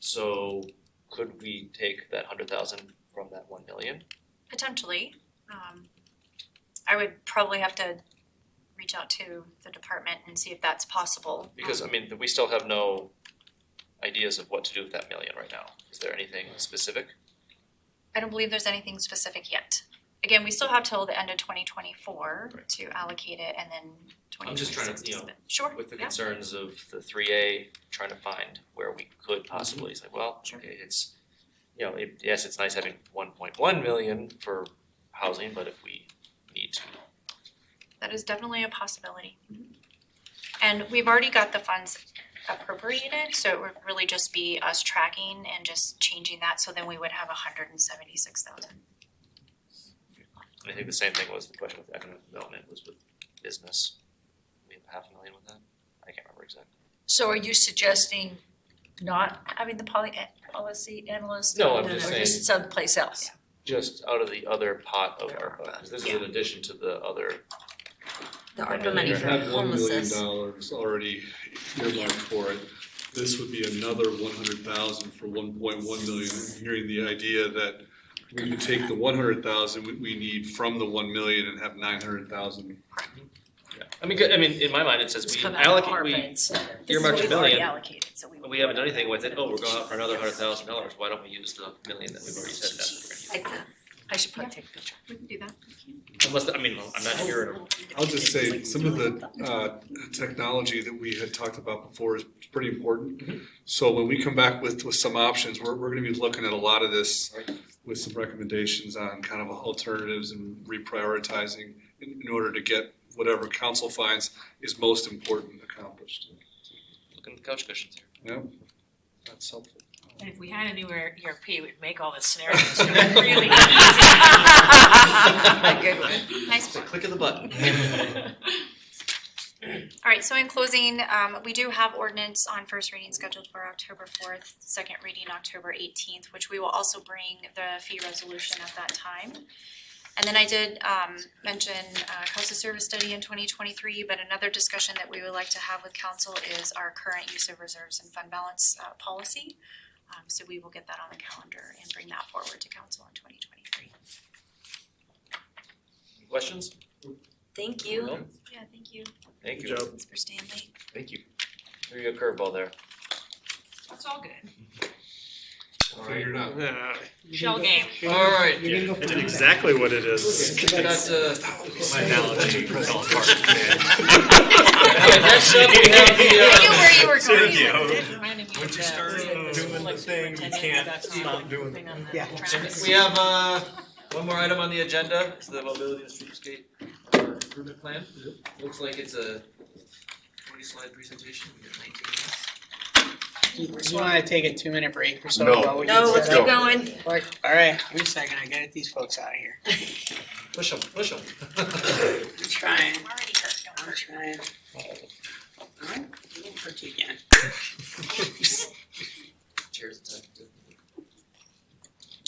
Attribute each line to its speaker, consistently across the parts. Speaker 1: So could we take that hundred thousand from that one million?
Speaker 2: Potentially, um, I would probably have to reach out to the department and see if that's possible. Um,
Speaker 1: Because I mean, we still have no ideas of what to do with that million right now. Is there anything specific?
Speaker 2: I don't believe there's anything specific yet. Again, we still have till the end of twenty twenty-four
Speaker 1: Right.
Speaker 2: to allocate it and then
Speaker 1: I'm
Speaker 2: twenty
Speaker 1: just trying to,
Speaker 2: twenty-six
Speaker 1: you
Speaker 2: to
Speaker 1: know,
Speaker 2: spend. Sure,
Speaker 1: With the
Speaker 2: yeah,
Speaker 1: concerns of the three A, trying to find where we could possibly, it's like, well,
Speaker 2: Sure.
Speaker 1: okay, it's, you know, it, yes, it's nice having one point one million for housing, but if we need to,
Speaker 2: that is definitely a possibility.
Speaker 1: Mm-hmm.
Speaker 2: And we've already got the funds appropriated, so it would really just be us tracking and just changing that, so then we would have hundred and seventy-six thousand.
Speaker 1: and I think the same thing was the question with economic development was with business. We have half a million with that? I can't remember exactly.
Speaker 3: So are you suggesting not having the poly, policy analyst?
Speaker 1: No, I'm
Speaker 3: and
Speaker 1: just
Speaker 3: or
Speaker 1: saying-
Speaker 3: someplace else?
Speaker 1: Just out of the other pot of
Speaker 3: Our
Speaker 1: ARPA,
Speaker 3: pot,
Speaker 1: 'cause this is in addition to the other
Speaker 4: The
Speaker 1: Right,
Speaker 4: ARPA money
Speaker 1: you
Speaker 4: for
Speaker 5: That one million
Speaker 4: homelessness.
Speaker 5: dollars already earmarked for it. This would be another one hundred thousand for one point one million. I'm Hearing the idea that we could take the one hundred thousand we, we need from the one million and have nine hundred thousand.
Speaker 1: I mean, 'cause- I mean, in my mind, it says
Speaker 3: It's
Speaker 1: we
Speaker 3: come out of ARPA
Speaker 1: allocate, we,
Speaker 3: instead
Speaker 1: earmarked a
Speaker 3: of- This is what we've already
Speaker 1: million.
Speaker 3: allocated, so we. would-
Speaker 1: we haven't done anything with it, oh, we're going out for another hundred thousand dollars, why don't we use the million that we've already said that's what we're gonna use?
Speaker 4: Like that.
Speaker 3: I should probably take a picture.
Speaker 2: We can do that.
Speaker 1: Unless, I mean, I'm not here,
Speaker 5: I'll just say, some of the, uh, technology that we had talked about before is pretty important. So when we come back with, with some options, we're, we're gonna be looking at a lot of this with some recommendations on kind of alternatives and reprioritizing in, in order to get whatever council finds is most important accomplished.
Speaker 1: looking at the couch cushions here.
Speaker 5: Yeah, that's helpful.
Speaker 6: And if we had a new ER- ERP, we'd make all the scenarios really easy.
Speaker 3: A good one.
Speaker 2: Nice
Speaker 1: a click of the button.
Speaker 2: All right, so in closing, um, we do have ordinance on first reading scheduled for October fourth, second reading October eighteenth, which we will also bring the fee resolution at that time. And then I did, um, mention, uh, cost of service study in twenty twenty-three, but another discussion that we would like to have with council is our current use of reserves and fund balance, uh, policy. Um, so we will get that on the calendar and bring that forward to council in twenty twenty-three.
Speaker 1: Questions?
Speaker 4: Thank you.
Speaker 2: Yeah, thank you,
Speaker 1: Thank
Speaker 5: Good
Speaker 1: you.
Speaker 5: job.
Speaker 2: Mr. Stanley.
Speaker 1: Thank you. There you go, curveball there.
Speaker 6: It's all good.
Speaker 5: Figured out.
Speaker 6: Shell game.
Speaker 1: Alright.
Speaker 7: That's exactly what it is.
Speaker 1: uh,
Speaker 7: My analogy fell apart.
Speaker 1: next up, we have the, uh,
Speaker 2: I knew where you were
Speaker 7: Sit
Speaker 2: going.
Speaker 7: with you.
Speaker 6: Once you
Speaker 7: start doing the thing, you can't stop doing
Speaker 6: it.
Speaker 8: Yeah.
Speaker 1: We have, uh, one more item on the agenda, it's the mobility and streetscape uh, improvement plan. Looks like it's a forty slide presentation, we got nineteen minutes.
Speaker 8: Do you wanna take a two minute break or so?
Speaker 9: No.
Speaker 8: while we get
Speaker 4: No, let's
Speaker 8: set
Speaker 4: keep
Speaker 8: up?
Speaker 4: going.
Speaker 8: Like, Alright, give me a second, I gotta get these folks out of here.
Speaker 1: Push them, push them.
Speaker 8: I'm trying,
Speaker 6: I'm already hurt, don't
Speaker 8: I'm
Speaker 6: worry.
Speaker 8: trying. Alright, I didn't hurt you again.
Speaker 1: Cheers. to-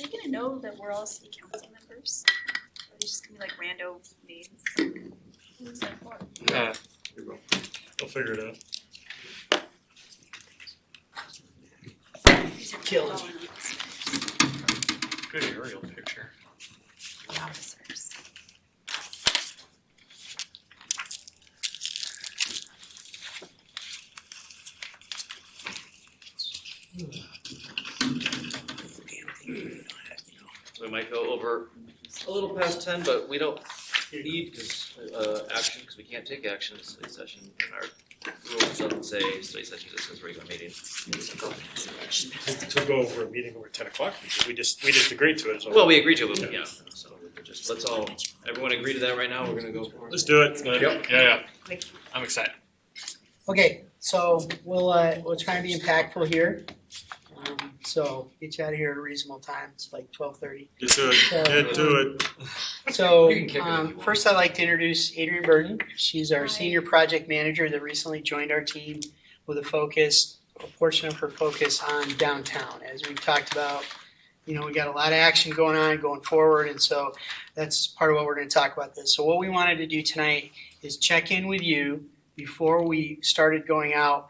Speaker 2: Are they gonna know that we're all city council members? Or are they just gonna be like rando names? Who's that for?
Speaker 7: I'll figure it out.
Speaker 8: Killed.
Speaker 7: Good aerial picture.
Speaker 2: Officers.
Speaker 1: We might go over a little past ten, but we don't need, cause, uh, action, cause we can't take action in study session. And our rules doesn't say study session, it says regular meeting.
Speaker 7: We Took over a meeting over ten o'clock, we just, we just agreed to it, so.
Speaker 1: Well, we agreed to it, but yeah, so we're just, let's all, everyone agree to that right now, we're gonna go for it.
Speaker 7: Let's do it.
Speaker 9: Yep.
Speaker 7: Yeah, yeah. I'm excited.
Speaker 8: Okay, so we'll, uh, we'll try and be impactful here. Um, so get you out of here at a reasonable time, it's like twelve thirty.
Speaker 7: Get to it, get to it.
Speaker 8: So,
Speaker 1: You can kick it if you
Speaker 8: um,
Speaker 1: want.
Speaker 8: first I'd like to introduce Adrian Burton. She's our
Speaker 2: Hi.
Speaker 8: senior project manager that recently joined our team with a focus, a portion of her focus on downtown. As we've talked about, you know, we got a lot of action going on going forward, and so that's part of what we're gonna talk about this. So what we wanted to do tonight is check in with you before we started going out